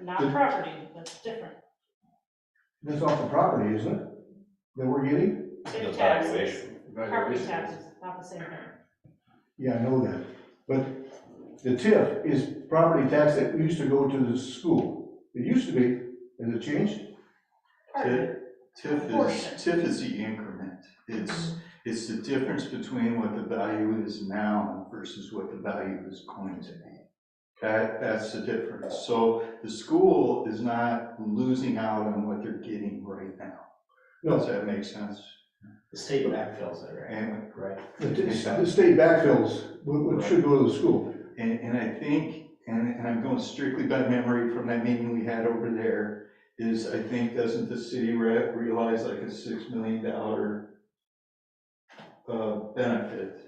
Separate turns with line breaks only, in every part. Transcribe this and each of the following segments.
not
Good.
property, that's different.
That's off the property, isn't it? That we're getting?
Same
The
taxes,
valuation.
property taxes, not the same thing.
Yeah, I know that. But the TIF is property tax that used to go to the school. It used to be, has it changed?
Part of it,
TIF is,
Portion.
TIF is the increment. It's, it's the difference between what the value is now versus what the value is going to be. That, that's the difference. So the school is not losing out on what they're getting right now.
No.
Does that make sense?
The state backfills it, right?
And,
Right.
The t- the state backfills, what, what should go to the school.
and, and I think, and, and I'm going strictly by memory from that meeting we had over there, is I think, doesn't the city re- realize like a six million dollar uh, benefit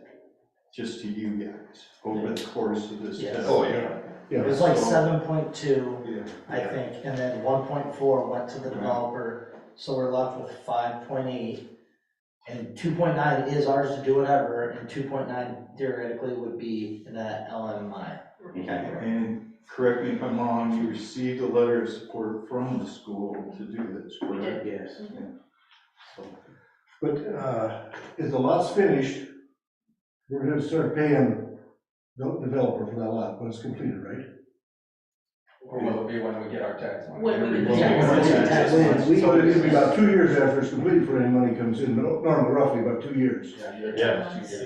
just to you guys over the course of this?
Yes.
test?
Oh, yeah.
Yeah.
It was like
So-
seven point two,
Oh,
Yeah.
I think, and then one point four went to the developer, so we're left with five point eight. And two point nine is ours to do whatever, and two point nine theoretically would be in that LMI.
And correct me if I'm wrong, you received a letter of support from the school to do this,
We did.
correct?
Yes.
So-
But, uh, if the lot's finished, we're gonna start paying the developer for that lot when it's completed, right?
Or will it be when we get our tax money?
When we get
Yeah,
Yeah,
it's
yeah,
tax
yeah.
money.
So it'll be about two years after it's completed before any money comes in, no- normally roughly about two years.
Yeah.
Okay.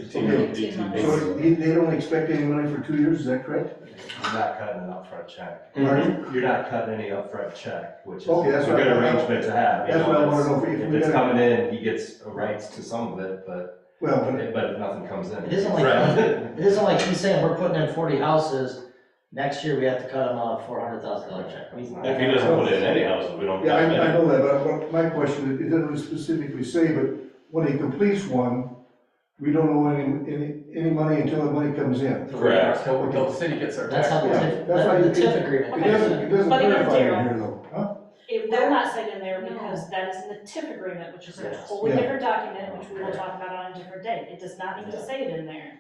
Eighteen months.
So they, they don't expect any money for two years, is that correct?
You're not cutting an upfront check.
Mhm.
You're not cutting any upfront check, which is a
Okay, that's what I-
good arrangement to have, you
That's what I
know,
wanna
it's-
know, if
if
we
it's
gotta,
coming in, he gets rights to some of it, but,
well, but
but if nothing comes in.
It isn't like-
Right.
It isn't like he's saying we're putting in forty houses, next year we have to cut him out a four hundred thousand dollar check.
If he doesn't put in any houses, we don't.
Yeah, I,
count it.
I know that, but what- my question, it doesn't really specifically say, but when he completes one, we don't owe any, any, any money until the money comes in.
Correct.
Until, until the city gets their
That's
tax
how the
money.
Yeah,
TIF,
that's why
that- the
you-
TIF agreement.
It
Okay.
is.
doesn't, it doesn't
But it is
clarify
zero.
it here though, huh?
It will not say it in there because that is in the TIF agreement, which is a
Yes.
wholly
Yeah.
different document, which we will talk about on a different day. It does not need to say it in there.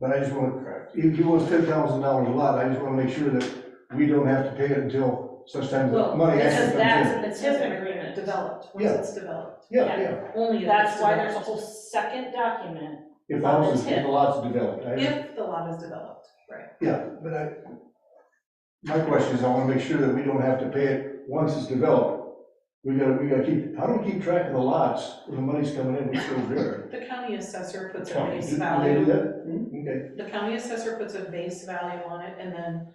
But I just want, if he wants ten thousand dollars a lot, I just wanna make sure that we don't have to pay it until such time the
Well,
money
Because
actually comes
that's
in.
in the TIF agreement.
once
Developed, once
Yeah.
it's developed,
Yeah, yeah,
only if
That's why there's a whole second document.
if the house is, if the lot's developed, I,
If the lot is developed, right.
yeah, but I, my question is, I wanna make sure that we don't have to pay it once it's developed. We gotta, we gotta keep, how do we keep track of the lots when the money's coming in, which goes there?
The county assessor puts a
County,
base
Do they do
value,
that? Hmm? Okay,
the county assessor puts a base value on it, and then,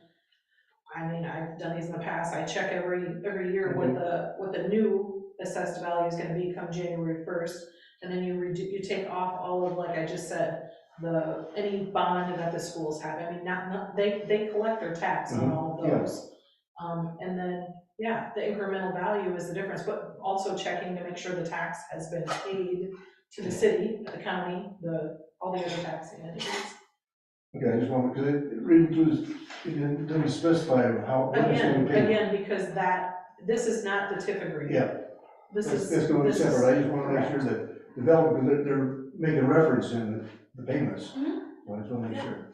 I mean, I've done these in the past, I check every, every year what the, what the new assessed value is gonna be come January first, and then you redo, you take off all of, like I just said, the, any bond that the schools have, I mean, not, not, they, they collect their tax on all of
Mhm, yeah.
those. Um, and then, yeah, the incremental value is the difference, but also checking to make sure the tax has been paid to the city, the county, the, all the other taxing entities.
okay, I just want, because it, reading through this, it didn't- doesn't specify how, what it's gonna
Again,
be.
again, because that, this is not the TIF agreement.
Yeah.
This
That's,
is.
that's going
this is-
separate, I just wanna make sure that developer, because they're, they're making reference in the payments.
Mm-hmm.
So I just wanna make sure.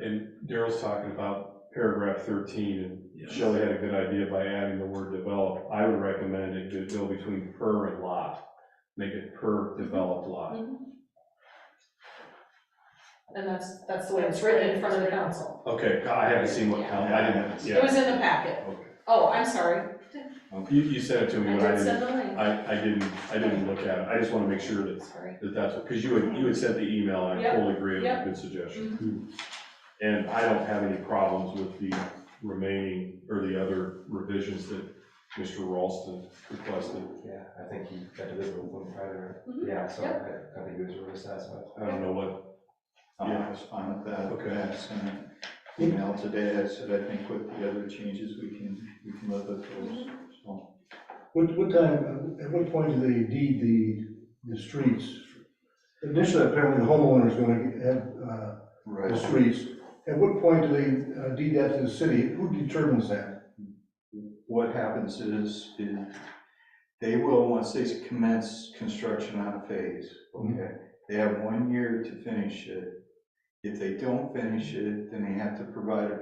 And Daryl's talking about paragraph thirteen, and Shelley had a good idea by adding the word develop. I would recommend it could go between per and lot, make it per developed lot.
And that's, that's the way it's written in front of the council.
Okay, I haven't seen what count, I didn't,
It
yeah.
was in the packet.
Okay.
Oh, I'm sorry.
You, you sent it to me, but I didn't,
the link.
I, I didn't, I didn't look at it. I just wanna make sure that,
Sorry.
that that's, because you had, you had sent the email, and I
Yep,
totally agree, it was a
yep. Mm-hmm.
good suggestion. And I don't have any problems with the remaining, or the other revisions that Mr. Ralston requested.
Yeah, I think you got to visit with him Friday, right?
Mhm.
Yeah, so I I think he was really satisfied.
I don't know what,
Yeah, I was fine with that.
Okay.
I sent an email today, I said, I think with the other changes, we can, we can live with those, so.
What, what time, at what point do they deed the, the streets? Initially, apparently the homeowner's gonna have, uh, the
Right.
streets. At what point do they uh, deed that to the city? Who determines that?
What happens is, is they will, once they commence construction on a phase, okay? They have one year to finish it. If they don't finish it, then they have to provide a